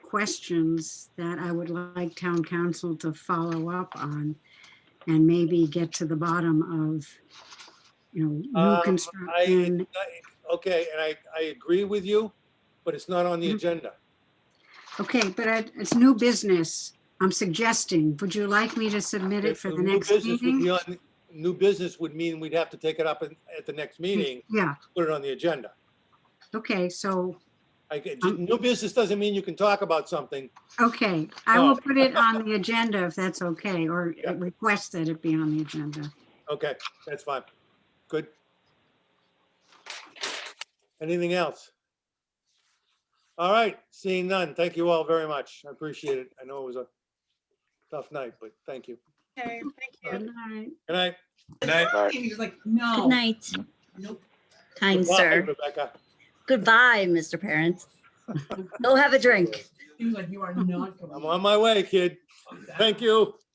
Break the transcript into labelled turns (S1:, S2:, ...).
S1: questions that I would like town council to follow up on and maybe get to the bottom of, you know, new
S2: Um, I-
S1: construction.
S2: Okay, and I, I agree with you, but it's not on the
S1: Mhm.
S2: agenda.
S1: Okay, but I- it's new business. I'm suggesting, would you like me to submit it
S2: If
S1: for the
S2: new
S1: next
S2: business would be
S1: meeting?
S2: on- New business would mean we'd have to take it up at at the next
S1: Mm-hmm.
S2: meeting,
S1: Yeah,
S2: put it on the agenda.
S1: okay, so,
S2: I, get-
S1: Um,
S2: new business doesn't mean you can talk about something.
S1: okay, I will
S2: No.
S1: put it on the agenda if that's okay, or
S2: Yeah.
S1: request that it be on the agenda.
S2: Okay, that's fine. Good. Anything else? All right, seeing none. Thank you all very much. I appreciate it. I know it was a tough night, but thank you.
S3: Okay, thank
S1: Good
S3: you.
S1: night.
S2: Good night.
S3: He was like, no.
S4: Good night,
S3: Nope.
S4: kind
S2: Goodbye,
S4: sir.
S2: Rebecca.
S4: Goodbye, Mr. Parent. Go have a drink.
S3: He was like, you are not
S2: I'm
S3: going.
S2: on my way, kid. Thank you.